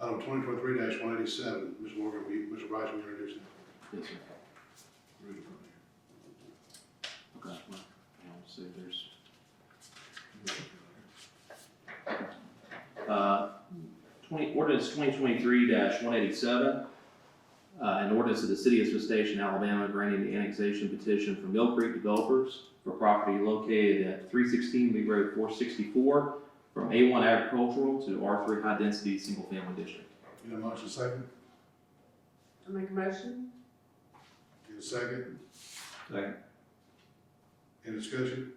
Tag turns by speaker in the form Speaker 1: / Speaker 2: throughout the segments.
Speaker 1: twenty twenty-three one eighty-seven, Mr. Morgan, will you, Mr. Rice, will you introduce that?
Speaker 2: Yes, sir. Read it from here. Okay, well, I'll see if there's.
Speaker 3: Uh, twenty, ordinance twenty twenty-three one eighty-seven. Uh, an ordinance of the city of Smith Station, Alabama, granting the annexation petition for Mill Creek Developers for property located at three sixteen Lee Road four sixty-four from A one agricultural to R three high density single family district.
Speaker 1: Need a motion second?
Speaker 4: I make a motion?
Speaker 1: Need a second?
Speaker 2: Second.
Speaker 1: Any discussion?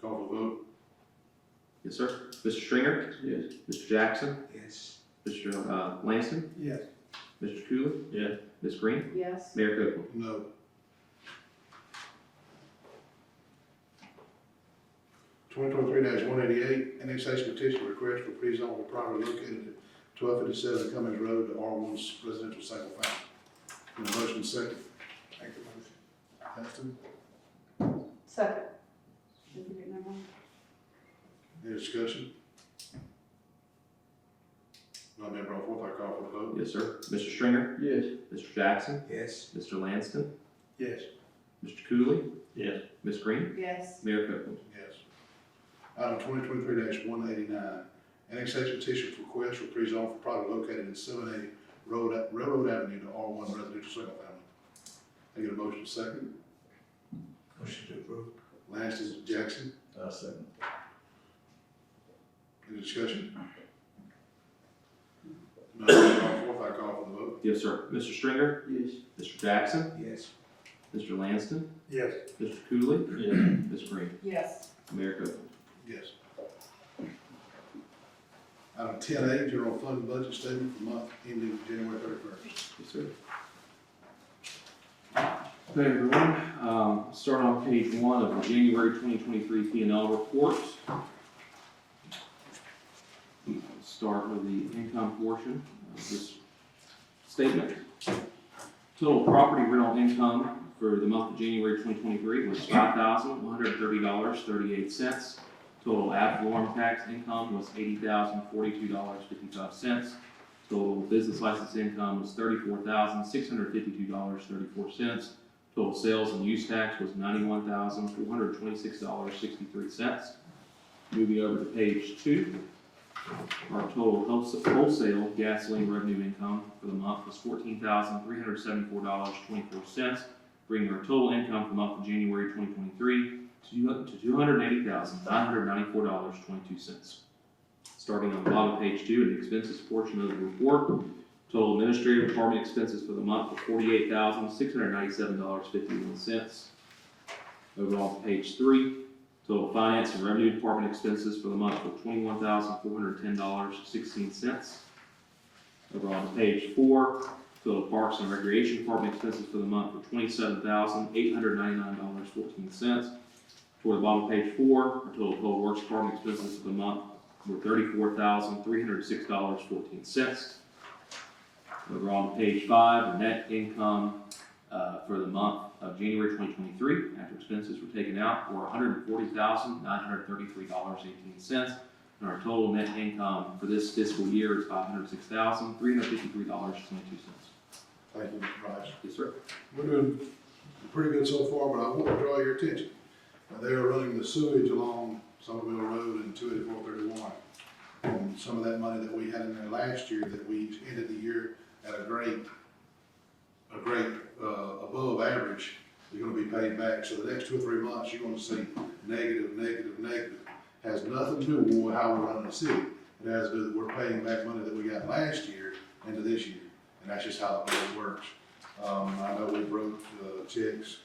Speaker 1: Call for the vote.
Speaker 3: Yes, sir. Mr. Stringer?
Speaker 2: Yes.
Speaker 3: Mr. Jackson?
Speaker 1: Yes.
Speaker 3: Mr. Uh, Langston?
Speaker 1: Yes.
Speaker 3: Mr. Cooley?
Speaker 2: Yeah.
Speaker 3: Ms. Green?
Speaker 4: Yes.
Speaker 3: Mayor Copeland?
Speaker 1: No. Twenty twenty-three one eighty-eight, annexation petition request for pre-zone for property located at twelve fifty-seven Cummings Road to R one residential single family. Need a motion second? Make the motion. Heston,
Speaker 4: Second. Did you get that one?
Speaker 1: any discussion? Not being brought forth, I call for the vote.
Speaker 3: Yes, sir. Mr. Stringer?
Speaker 2: Yes.
Speaker 3: Mr. Jackson?
Speaker 1: Yes.
Speaker 3: Mr. Lanston?
Speaker 1: Yes.
Speaker 3: Mr. Cooley?
Speaker 2: Yes.
Speaker 3: Ms. Green?
Speaker 4: Yes.
Speaker 3: Mayor Copeland?
Speaker 1: Yes. Item twenty twenty-three one eighty-nine, annexation petition for request for pre-zone for property located in seven eighty Road, Railroad Avenue to R one residential single family. Can I get a motion second?
Speaker 2: Motion to approve.
Speaker 1: Last is Jackson,
Speaker 2: Uh, second.
Speaker 1: any discussion? None, call forth, I call for the vote.
Speaker 3: Yes, sir. Mr. Stringer?
Speaker 2: Yes.
Speaker 3: Mr. Jackson?
Speaker 1: Yes.
Speaker 3: Mr. Lanston?
Speaker 1: Yes.
Speaker 3: Mr. Cooley?
Speaker 2: Yeah.
Speaker 3: Ms. Green?
Speaker 4: Yes.
Speaker 3: Mayor Copeland?
Speaker 1: Yes. Item ten A, general fund budget statement for month ending January thirty-first.
Speaker 3: Yes, sir. Hey, everyone. Um, Start on page one of the January 2023 P and L report. Start with the income portion of this statement. Total property rental income for the month of January 2023 was $5,130.38. Total ad valorem tax income was $80,042.55. Total business license income was thirty-four thousand, six hundred fifty-two dollars, thirty-four cents. Total sales and use tax was ninety-one thousand, four hundred twenty-six dollars, sixty-three cents. Moving over to page two. Our total wholes- wholesale gasoline revenue income for the month was fourteen thousand, three hundred seventy-four dollars, twenty-four cents, bringing our total income for the month of January twenty twenty-three to two hundred eighty thousand, nine hundred ninety-four dollars, twenty-two cents. Starting on the bottom of page two, in the expenses portion of the report, total administrative department expenses for the month were forty-eight thousand, six hundred ninety-seven dollars, fifty-one cents. Over on page three, total finance and revenue department expenses for the month were twenty-one thousand, four hundred ten dollars, sixteen cents. Over on page four, total parks and recreation department expenses for the month were twenty-seven thousand, eight hundred ninety-nine dollars, fourteen cents. Toward the bottom of page four, our total public works department expenses for the month were thirty-four thousand, three hundred six dollars, fourteen cents. Over on page five, net income, uh, for the month of January twenty twenty-three, after expenses were taken out, were hundred and forty thousand, nine hundred thirty-three dollars, eighteen cents. And our total net income for this fiscal year is five hundred six thousand, three hundred fifty-three dollars, twenty-two cents.
Speaker 1: Thank you, Mr. Rice.
Speaker 3: Yes, sir.
Speaker 1: We're doing pretty good so far, but I want to draw your attention. Uh, They are running the sewage along Somerville Road and two eighty-four thirty-one. And Um, some of that money that we had in there last year, that we ended the year at a great, a great, uh, above average, is gonna be paid back. So the next two or three months, you're gonna see negative, negative, negative. Has nothing to do with how we're running the city. It has to do that we're paying back money that we got last year into this year. And that's just how it works. Um, I know we broke, uh, checks,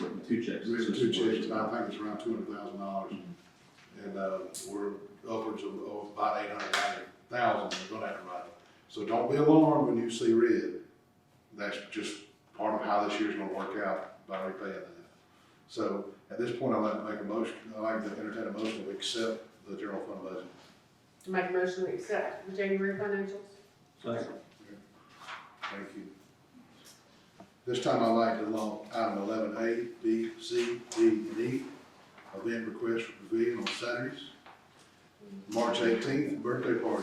Speaker 3: Written two checks.
Speaker 1: written two checks, and I think it's around two hundred thousand dollars. And, uh, we're upwards of, of about eight hundred ninety thousand, we're gonna have to write it. So don't be alarmed when you see red. That's just part of how this year's gonna work out by repaying that. So at this point, I'd like to make a motion, I'd like to entertain a motion to accept the general fund budget.
Speaker 4: I make a motion to accept the January financials.
Speaker 2: Second.
Speaker 1: Thank you. This time I'd like to along item eleven A, B, C, D, and E, event request for pavilion on Saturdays. March eighteenth, birthday party.